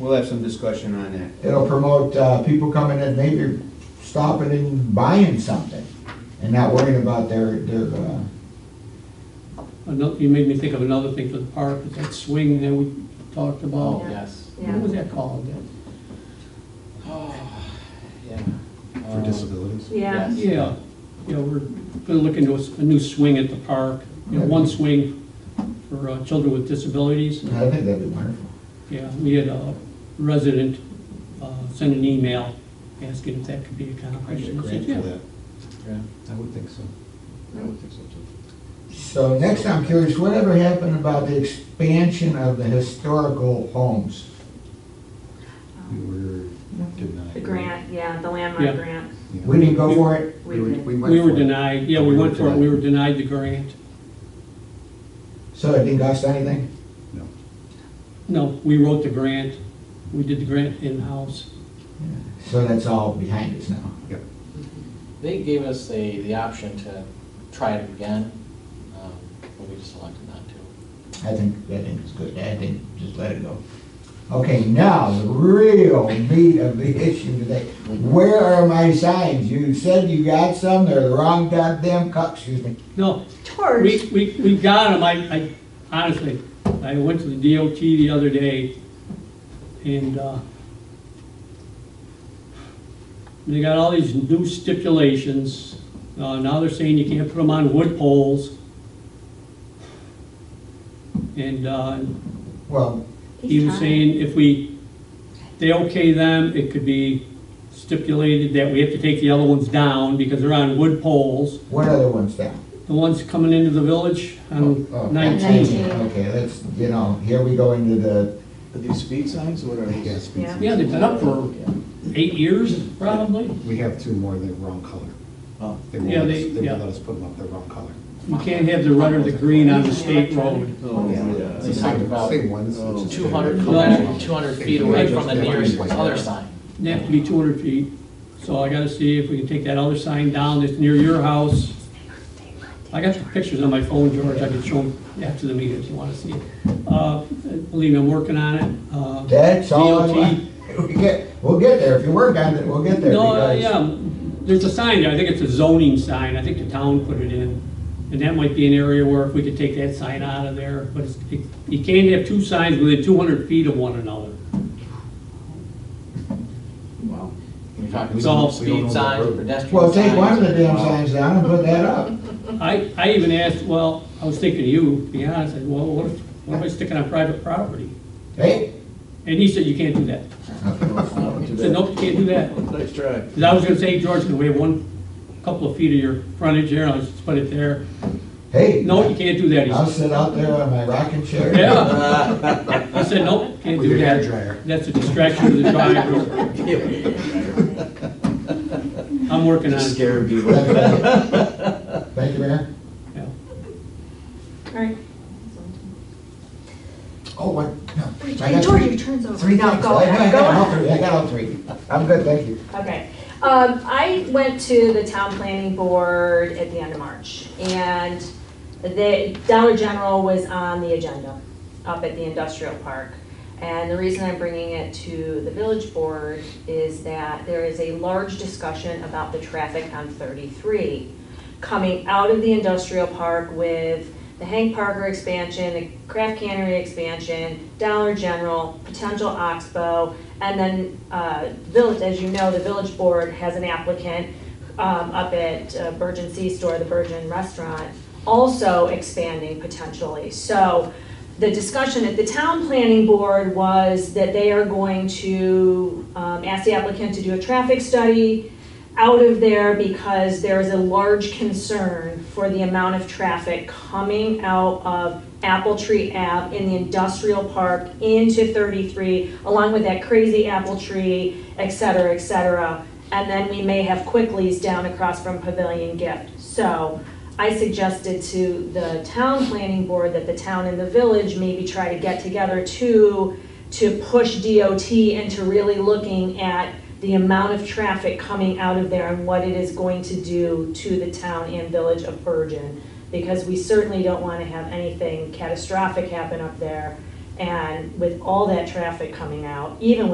We'll have some discussion on that. It'll promote, uh, people coming in, maybe stopping and buying something and not worrying about their, their, uh, Another, you made me think of another thing for the park, is that swing that we talked about. Oh, yes. What was that called? That- Yeah. For disabilities? Yeah. Yeah, yeah, we're gonna look into a s- a new swing at the park, you know, one swing for uh, children with disabilities. I think that'd be wonderful. Yeah, we had a resident uh, send an email asking if that could be I accomplished. get a And I said, grant for yeah. that. Yeah. I would think so. I would think so too. So next, I'm curious, whatever happened about the expansion of the historical homes? We were denied. Um, The grant, yeah, Yeah. the landmark grant, Yeah. We didn't go for it? we did. We were denied, yeah, we went for it, we were denied the grant. So it didn't cost anything? No. No, we wrote the grant, we did the grant in-house. So that's all behind us now. They gave us the, the option to try it again, um, but we just elected not to. I think, I think it's good, I think, just let it go. Okay, now, the real meat of the issue today, where are my signs? You said you got some, they're the wrong goddamn co, excuse me. No, George, We, we, we got them, I, I, honestly, I went to the DOT the other day, and, uh, they got all these new stipulations, uh, now they're saying you can't put them on wood poles. And, uh, Well, he was He's saying if we, they okay them, it could be stipulated that we have to take the other ones down, because they're on wood poles. what other ones down? The ones coming into the village Oh, on nineteen. Nineteen. Okay, let's, you know, here we go into the, Are these speed signs, what are Yeah, these? it's- Yeah. Yeah, they've been up for eight years, probably. We have two more, they're wrong color. Oh. They won't, Yeah, let they- us- they yeah. won't let us put them up, they're wrong color. You can't have the red or the green on the state road. Oh, yeah. They talked about Same ones. it's just two hundred, they're- No. two hundred feet away from the nearest other sign. They have to be two hundred feet. So I gotta see if we can take that other sign down that's near your house. I got the pictures on my phone, George, I could show them after the meeting if you wanna see it. Uh, believe me, I'm working on it. Uh, that's all. I DOT. want. We get, we'll get there, if you work on it, we'll get there. No, uh, because- yeah, there's a sign there, I think it's a zoning sign, I think the town put it in. And that might be an area where if we could take that sign out of there, but it's- it- you can't have two signs within 200 feet of one another. We We're talking all about don't know speed that signs, road. pedestrian signs. Well, take one of the damn Wow. signs down and put that up. I, I even asked, well, I was thinking of you, to be honest, I said, well, what if, what if I stick it on private property? Hey, And he said, you can't do that. I said, nope, you can't do that. Nice try. Because I was gonna say, George, we have one, couple of feet of your frontage here, I'll just put it there. hey. No, you can't do that, he I'll said. sit out there on my rocking chair. Yeah. I said, nope, can't With do your hair that. dryer. That's a distraction to the driver. I'm working on it. Scary people. Thank you, Mayor. Yeah. All right. Oh, what? No. I got George, your turn's over. Three dollars. Go I got- I ahead, go got all ahead. three. I got all three. I'm good, thank you. Okay. Um, I went to the town planning board at the end of March, and the Dollar General was on the agenda up at the industrial park. And the reason I'm bringing it to the village board is that there is a large discussion about the traffic on 33 coming out of the industrial park with the Hank Parker expansion, the Craft Cannery expansion, Dollar General, potential Oxbow, and then, uh, Village, as you know, the Village Board has an applicant, um, up at uh, Virgin Sea Store, the Virgin Restaurant, also expanding potentially. So the discussion at the town planning board was that they are going to, um, ask the applicant to do a traffic study, out of there because there is a large concern for the amount of traffic coming out of Apple Tree Ave in the industrial park into 33, along with that crazy apple tree, et cetera, et cetera. And then we may have Quicklies down across from Pavilion Gift. So I suggested to the town planning board that the town and the village maybe try to get together to, to push DOT into really looking at the amount of traffic coming out of there and what it is going to do to the town and village of Bergen. Because we certainly don't want to have anything catastrophic happen up there And with all that traffic coming out, even